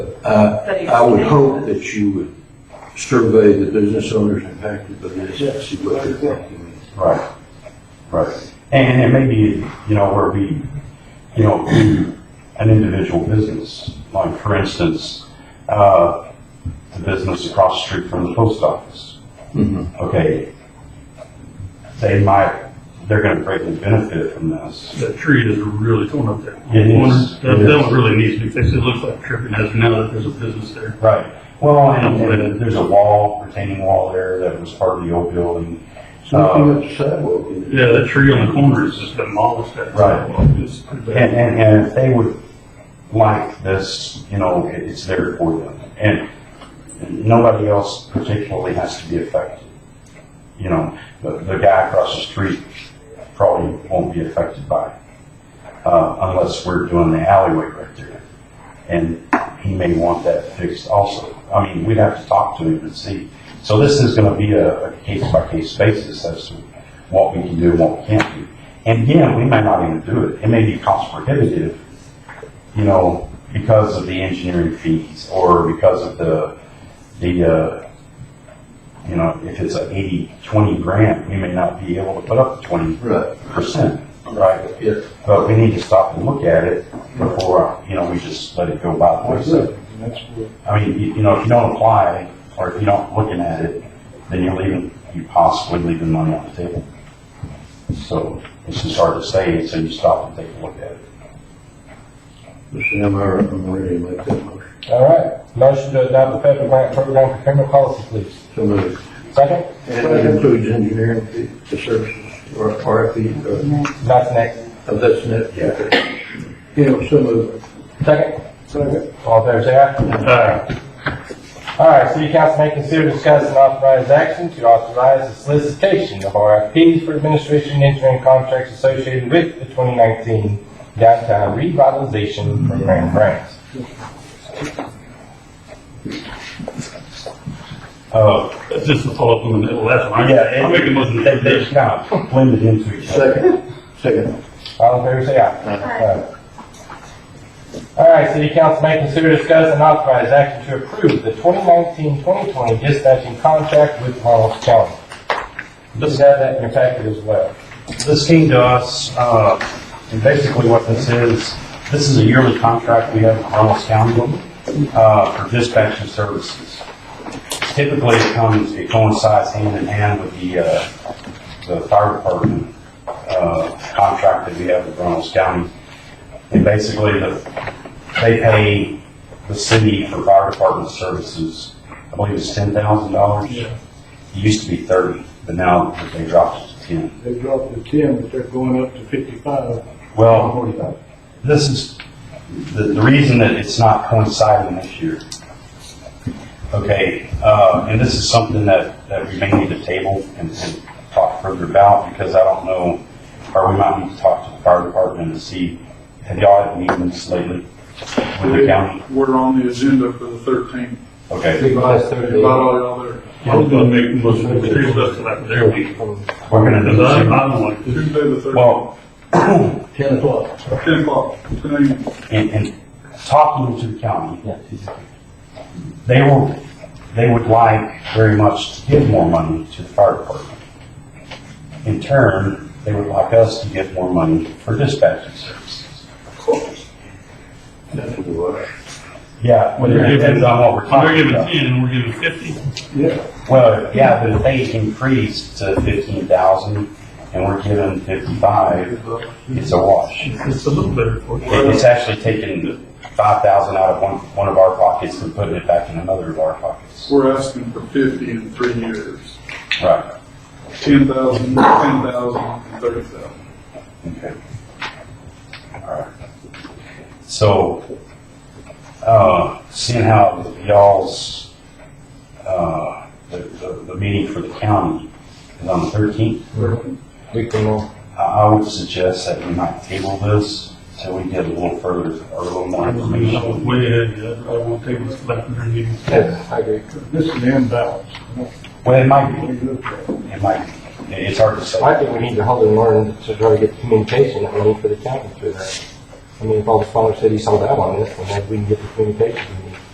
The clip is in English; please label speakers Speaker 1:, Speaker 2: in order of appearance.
Speaker 1: I,
Speaker 2: But
Speaker 1: I would
Speaker 2: it's-
Speaker 1: hope that you would survey the business owners impacted by this, and see what they're thinking.
Speaker 3: Right, right. And it may be, you know, where we, you know, do an individual business, like for instance, uh, the business across the street from the post office.
Speaker 4: Mm-hmm.
Speaker 1: Mhm.
Speaker 3: Okay, they might, they're gonna greatly benefit from this.
Speaker 5: That tree is really torn up there.
Speaker 3: It is.
Speaker 5: Corner. That,
Speaker 3: It
Speaker 5: that
Speaker 3: is.
Speaker 5: one really needs to be fixed. It looks like tripping hazard now that there's a business there.
Speaker 3: Right. Well, and and there's a wall, retaining wall there that was part of the old building.
Speaker 1: It's nothing but the sidewalk, isn't it?
Speaker 5: Yeah, that tree on the corner is just demolished. That
Speaker 3: Right.
Speaker 5: sidewalk. It's pretty bad.
Speaker 3: And, and, and if they would like this, you know, it- it's there for them. And nobody else particularly has to be affected. You know, the, the guy across the street probably won't be affected by it. Uh, unless we're doing the alleyway right there. And he may want that fixed also. I mean, we'd have to talk to him and see. So this is gonna be a, a case by case basis as to what we can do and what we can't do. And again, we may not even do it. It may be cost prohibitive, you know, because of the engineering fees or because of the, the, uh, you know, if it's an 80 20 grant, we may not be able to put up the twenty
Speaker 1: Right,
Speaker 3: percent, right?
Speaker 1: yeah.
Speaker 3: But we need to stop and look at it before, you know, we just let it go by the wayside. I mean, you, you know, if you don't apply or if you don't looking at it, then you're leaving, you possibly leaving money on the table. So it's just hard to say until you stop and take a look at it.
Speaker 1: Mr. Hammer, I'm ready to make that motion.
Speaker 6: All right, motion to adopt the federal grant program for criminal policy, please.
Speaker 1: So moved.
Speaker 6: Second,
Speaker 1: And that includes engineering, fee, the services, or RFP, or,
Speaker 6: that's next.
Speaker 1: oh, that's uh, net. Yeah. You know, so moved.
Speaker 6: Second? Second. All fair say aye.
Speaker 5: Uh,
Speaker 6: All right, city council may consider discussing authorized action to authorize the solicitation of RFPs for administration and engineering contracts associated with the twenty nineteen downtown revitalization program grants.
Speaker 3: Uh,
Speaker 5: that's just a follow up on the last one.
Speaker 3: yeah.
Speaker 5: I'm making most of
Speaker 3: They, they
Speaker 5: the.
Speaker 3: kind of blended into each other.
Speaker 1: Second, second.
Speaker 6: All in favor, say aye. Aye. All right, city council may consider discuss and authorize action to approve the 2019-2020 dispatching contract with Harlan County. You have that in your packet as well.
Speaker 3: This came to us, uh, and basically what this is, this is a yearly contract we have with Harlan County, uh, for dispatching services. Typically, it comes, it coincides hand in hand with the, uh, the fire department, uh, contract that we have with Harlan County. And basically, the, they pay the city for fire department services, I believe it's ten thousand dollars. It used to be thirty, but now they dropped it to ten.
Speaker 4: They dropped to ten, but they're going up to fifty-five.
Speaker 3: Well, this is, the, the reason that it's not coinciding this year. Okay, uh, and this is something that, that we may need to table and, and talk further about, because I don't know, or we might need to talk to the fire department and see, have y'all had meetings lately with the county?
Speaker 7: We're on the agenda for the thirteenth.
Speaker 3: Okay,
Speaker 6: Revised
Speaker 7: About all y'all there.
Speaker 5: I was gonna make most of the tree stuff till after their week.
Speaker 3: we're gonna do
Speaker 5: Cause I,
Speaker 3: this.
Speaker 5: I don't like this.
Speaker 7: Tuesday the thirteenth,
Speaker 3: Well,
Speaker 1: Ten o'clock.
Speaker 7: ten o'clock, ten AM.
Speaker 3: and, and talking to the county, they will, they would like very much to give more money to the fire department. In turn, they would like us to give more money for dispatching services.
Speaker 1: That's a wash.
Speaker 3: Yeah, but it depends on what we're
Speaker 5: They're
Speaker 3: talking
Speaker 5: giving
Speaker 3: about.
Speaker 5: ten and we're giving fifty.
Speaker 3: Well, yeah, but if they increase to fifteen thousand and we're giving fifty-five, it's a wash. It-
Speaker 5: It's a little better for you.
Speaker 3: It's actually taking five thousand out of one, one of our pockets and putting it back in another of our pockets.
Speaker 7: We're asking for fifty in three years.
Speaker 3: Right,
Speaker 7: Ten thousand, ten thousand, and thirty thousand.
Speaker 3: okay. All right. So, uh, seeing how y'all's, uh, the, the, the meeting for the county is on the thirteenth,
Speaker 6: We can uh, move.
Speaker 3: I, I would suggest that we might table this till we get a little further, or a little more
Speaker 5: I
Speaker 3: information.
Speaker 5: was way ahead, yeah, I won't take this till after their meeting.
Speaker 6: I agree.
Speaker 4: This is the imbalance.
Speaker 3: Well, it
Speaker 4: What
Speaker 3: might
Speaker 4: do you look at?
Speaker 3: be, it might be, it's hard to
Speaker 6: I
Speaker 3: say.
Speaker 6: think we need to hold and learn to try to get communication that we need for the county through that. I mean, if all the smaller cities hold out on this, then maybe we can get the communication.